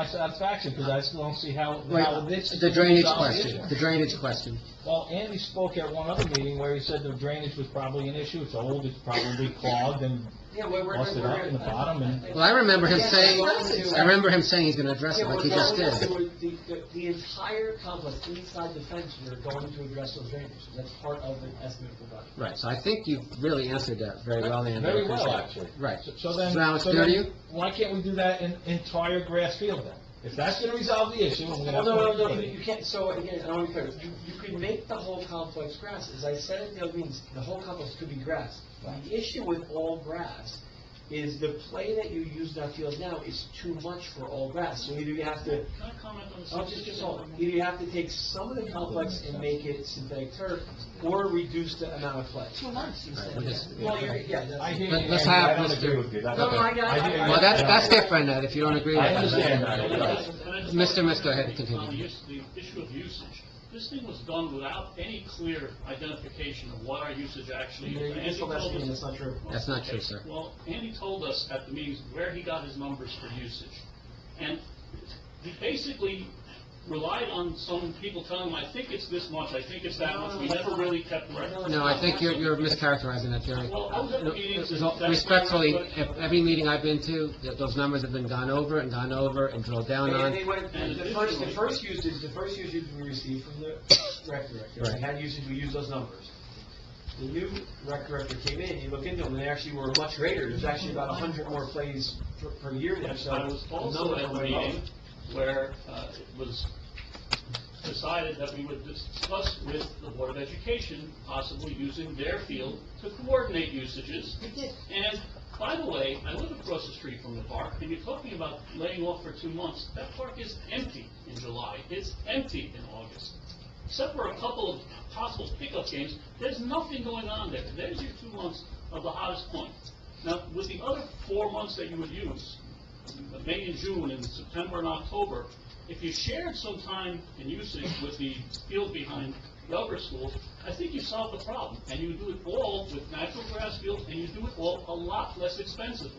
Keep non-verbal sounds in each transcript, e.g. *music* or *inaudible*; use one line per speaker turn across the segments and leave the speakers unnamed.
my satisfaction, because I still don't see how, how
Right,
this.
the drainage
resolves the
question,
issue.
the drainage question.
Well, Andy spoke at one other meeting where he said the drainage was probably an issue, it's old, it's probably clogged and
Yeah, we're, we're.
busted up in the bottom and.
Well, I remember him saying, I remember him saying he's gonna address
Yeah,
it
we're
like he
going
just
to,
did.
the, the- the entire complex inside the fence, we're going to address those drainage, that's part of the estimate for that.
Right, so I think you've really answered that very well, Andy. I
Very well,
appreciate it.
actually.
Right.
So- So then.
So now it's
so then
dirty?
Why can't we do that in entire grass field then? If that's gonna resolve the issue, I'm gonna
Well,
have
Oh, no, no,
to.
no, you you can't, so again, I want to be clear, you, you could make the whole complex grass, as I said at the other meetings, the whole complex could be grass. The issue with all grass is the play that you use in that field now is too much for all grass, so either you have to
Can I comment on the
Oh,
subject?
just, just hold on. Either you have to take some of the complex and make it synthetic turf, or reduce the amount of play.
Two months, you
Right,
said.
we just-
Well, you're, yeah,
I
that's,
hear you,
Let- let's
Andy, I
have
don't
Mr.
agree with you. That-
No, no, I got-
hear you.
I-
Well, that's, that's different, Ed, if you don't agree with
I
that. that's
understand
different.
that, yeah.
Mr. Misko, ahead, continue.
On the is- the issue of usage, this thing was done without any clear identification of what our usage actually
you're
is.
you're just
Andy told
lessening,
us-
that's not true.
That's not true, sir.
Well, Andy told us at the meetings where he got his numbers for usage. And he basically relied on some people telling him, I think it's this much, I think it's that much. We never really kept records.
No, I think you're, you're mischaracterizing that, Jerry.
Well, I was at the meetings and-
No, Respectfully, if every meeting I've been to, th- those numbers have been gone over and gone over and drilled down
And
on.
they went, the first, the first usage, the first usage we received from the rec director,
Right.
we had usage, we used those numbers. The new rec director came in, you look into them, and they actually were much greater, there's actually about a hundred more plays per, per year there, so.
I was
the
also
numbers
at the
went up.
meeting where uh, it was decided that we would discuss with the Board of Education possibly using their field to coordinate usages. And by the way, I live across the street from the park, and you're talking about laying off for two months. That park is empty in July. It's empty in August. Except for a couple of possible pickup games, there's nothing going on there. There's your two months of the hottest point. Now, with the other four months that you would use, May and June and September and October, if you shared some time and usage with the field behind the upper school, I think you solve the problem. And you do it all with natural grass field, and you do it all a lot less expensive.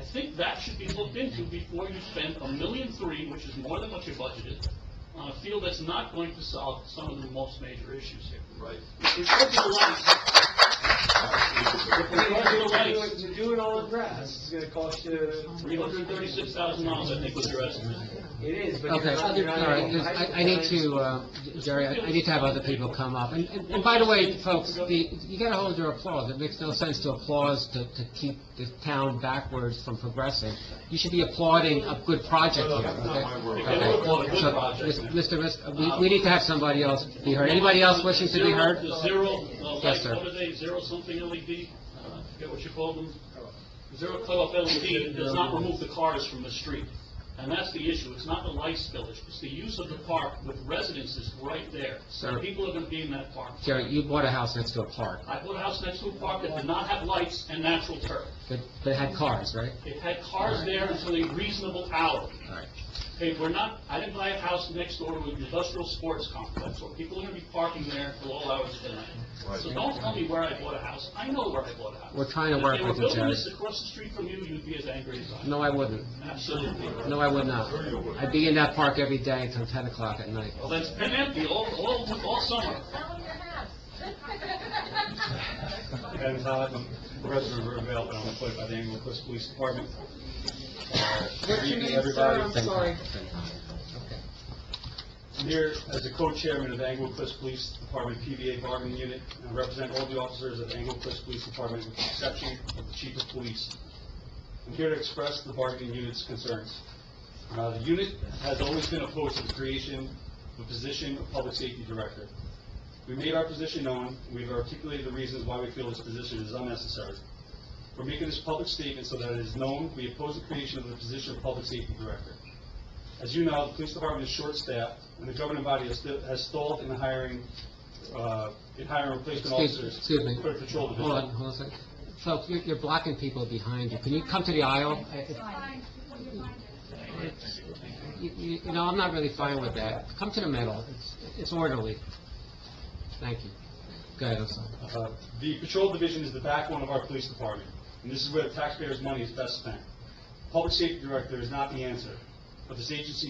I think that should be looked into before you spend a million three, which is more than what you budgeted, on a field that's not going to solve some of the most major issues here.
Right.
If we're gonna like-
If we're gonna do it- to do it all in grass, it's gonna cost you three hundred thirty-six thousand
$336,000,
dollars.
I think was your estimate.
It is, but.
Okay, all right, 'cause I, I need to, uh, Jerry, I I need to have other people come up. And, and and by the way, folks, the, you gotta hold your applause. It makes no sense to applause to, to keep the town backwards from progressing. You should be applauding a good project
No,
here,
no, that's not my word.
okay?
If they applaud a good
So,
project,
Mis- Mr. Misko, we, we need to have somebody else be heard. Anybody else wishing to be
Zero-
heard?
the Zero, uh,
Yes,
like,
sir.
what are they, zero something LED, uh, I forget what you call them? Zero club LED does not remove the cars from the street, and that's the issue, it's not the light spillage, it's the use of the park with residences right there.
Sir.
People are gonna be in that park.
Jerry, you bought a house next to a park
I bought a house next to a park that did not have lights and natural turf,
that, that had cars, right?
it had cars there until a reasonable hour.
All right.
Hey, we're not, I didn't buy a house next door to an industrial sports complex, where people are gonna be parking there till all hours of the night.
Right.
So don't tell me where I bought a house, I know where I bought a house.
We're trying to work with you,
If they were
Jerry.
building this across the street from you, you'd be as angry as I am.
No, I wouldn't.
Absolutely.
No, I would not. I'd be in that park every day until 10 o'clock at night.
Well, that's been empty all, all, all summer.
Sell your *laughs* house.
And uh, Todd, President Rivera, and I'm employed by the Anglin Cliffs Police Department. Uh, Good evening, everybody.
Thank you.
I'm here as a co-chairman of the Anglin Cliffs Police Department PVA bargaining unit, and represent all the officers of the Anglin Cliffs Police Department with the exception of the chief of police. I'm here to express the bargaining unit's concerns. Uh, The unit has always been opposed to the creation of a position of public safety director. We made our position known, and we've articulated the reasons why we feel this position is unnecessary. We're making this public statement so that it is known we oppose the creation of the position of public safety director. As you know, the police department is short-staffed, and the governing body has sti- has stalled in hiring, uh, in hiring replacement
Excuse
officers.
excuse me.
For the patrol division.
Hold on, hold on a second. Folks, you're- you're blocking people behind you. Can you come to the aisle? I- I-
Fine, you're fine.
You you- you know, I'm not really fine with that. Come to the middle. It's- It's orderly. Thank you. Go ahead, I'm sorry.
Uh, The patrol division is the backbone of our police department, and this is where the taxpayers' money is best spent. Public safety director is not the answer.
but this agency